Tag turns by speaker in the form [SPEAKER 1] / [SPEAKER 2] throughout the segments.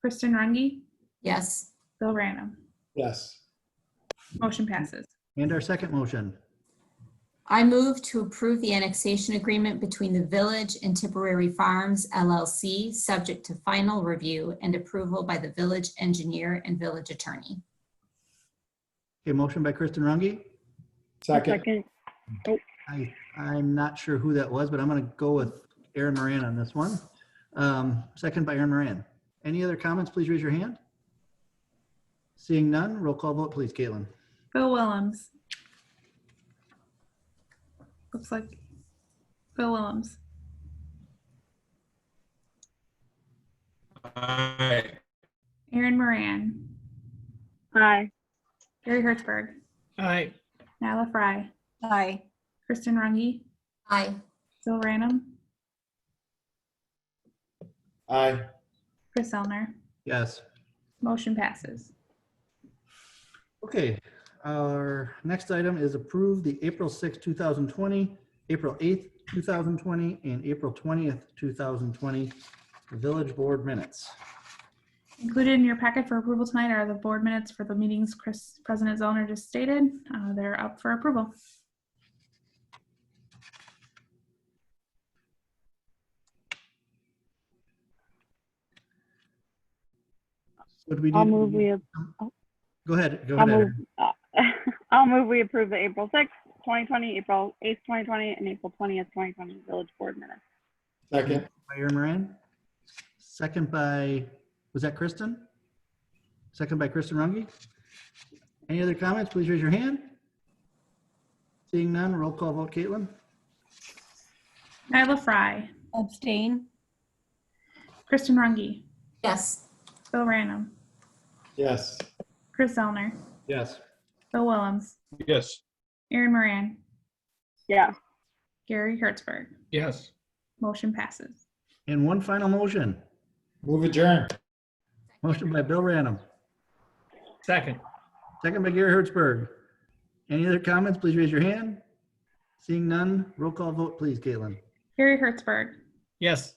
[SPEAKER 1] Kristen Rungy,
[SPEAKER 2] Yes.
[SPEAKER 1] Bill Random.
[SPEAKER 3] Yes.
[SPEAKER 1] Motion passes.
[SPEAKER 4] And our second motion,
[SPEAKER 2] I move to approve the annexation agreement between the Village and Tipperary Farms LLC, subject to final review and approval by the village engineer and village attorney.
[SPEAKER 4] a motion by Kristen Rungy.
[SPEAKER 3] Second.
[SPEAKER 5] Second,
[SPEAKER 4] I, I'm not sure who that was, but I'm going to go with Aaron Moran on this one. Um, Second by Aaron Moran. Any other comments? Please raise your hand. Seeing none, roll call vote, please, Caitlin.
[SPEAKER 1] Bill Willems. Looks like Bill Willems.
[SPEAKER 6] Aye.
[SPEAKER 1] Aaron Moran.
[SPEAKER 5] aye.
[SPEAKER 1] Gary Hertzberg.
[SPEAKER 3] Aye.
[SPEAKER 1] Nyla Fry.
[SPEAKER 7] aye.
[SPEAKER 1] Kristen Rungy.
[SPEAKER 2] Aye.
[SPEAKER 1] Bill Random.
[SPEAKER 3] Aye.
[SPEAKER 1] Chris Elner.
[SPEAKER 4] Yes.
[SPEAKER 1] Motion passes.
[SPEAKER 4] Okay, our next item is approve the April 6, 2020, April 8th, 2020, and April 20th, 2020 Village Board Minutes.
[SPEAKER 1] Included in your packet for approval tonight are the board minutes for the meetings Chris, President Zellner just stated. Uh, They're up for approval.
[SPEAKER 4] So do we
[SPEAKER 5] I'll
[SPEAKER 4] need-
[SPEAKER 5] move we, ap-
[SPEAKER 4] Go ahead, go
[SPEAKER 5] I'll
[SPEAKER 4] ahead.
[SPEAKER 5] move,
[SPEAKER 4] Aaron.
[SPEAKER 5] uh, I'll move we approve the April sixth, twenty twenty, April eighth, twenty twenty, and April twentieth, twenty twenty village board minutes.
[SPEAKER 3] Second.
[SPEAKER 4] By Aaron Moran. Second by, was that Kristen? Second by Kristen Rungy. Any other comments? Please raise your hand. Seeing none, roll call vote, Caitlin.
[SPEAKER 1] Nyla Fry.
[SPEAKER 7] Abstain,
[SPEAKER 1] Kristen Rungy.
[SPEAKER 2] Yes.
[SPEAKER 1] Bill Random.
[SPEAKER 3] Yes.
[SPEAKER 1] Chris Elner.
[SPEAKER 4] Yes.
[SPEAKER 1] Bill Willems.
[SPEAKER 6] Yes.
[SPEAKER 1] Aaron Moran.
[SPEAKER 5] Yeah,
[SPEAKER 1] Gary Hertzberg.
[SPEAKER 6] Yes.
[SPEAKER 1] Motion passes.
[SPEAKER 4] And one final motion.
[SPEAKER 3] Move adjourn.
[SPEAKER 4] Motion by Bill Random.
[SPEAKER 6] Second.
[SPEAKER 4] Second by Gary Hertzberg. Any other comments? Please raise your hand. Seeing none, roll call vote, please, Caitlin.
[SPEAKER 1] Gary Hertzberg.
[SPEAKER 6] Yes.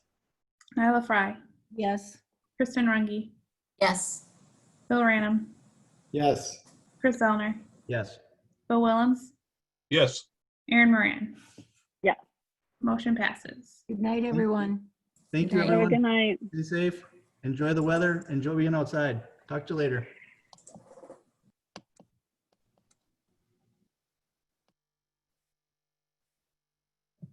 [SPEAKER 1] Nyla Fry.
[SPEAKER 7] yes.
[SPEAKER 1] Kristen Rungy.
[SPEAKER 2] Yes.
[SPEAKER 1] Bill Random.
[SPEAKER 3] Yes.
[SPEAKER 1] Chris Elner.
[SPEAKER 4] Yes.
[SPEAKER 1] Bill Willems.
[SPEAKER 6] Yes.
[SPEAKER 1] Aaron Moran.
[SPEAKER 5] Yeah.
[SPEAKER 1] Motion passes.
[SPEAKER 7] Good night, everyone.
[SPEAKER 4] Thank you,
[SPEAKER 2] Good
[SPEAKER 5] Have a good
[SPEAKER 4] everyone.
[SPEAKER 5] night.
[SPEAKER 4] Be safe. Enjoy the weather. Enjoy being outside. Talk to you later.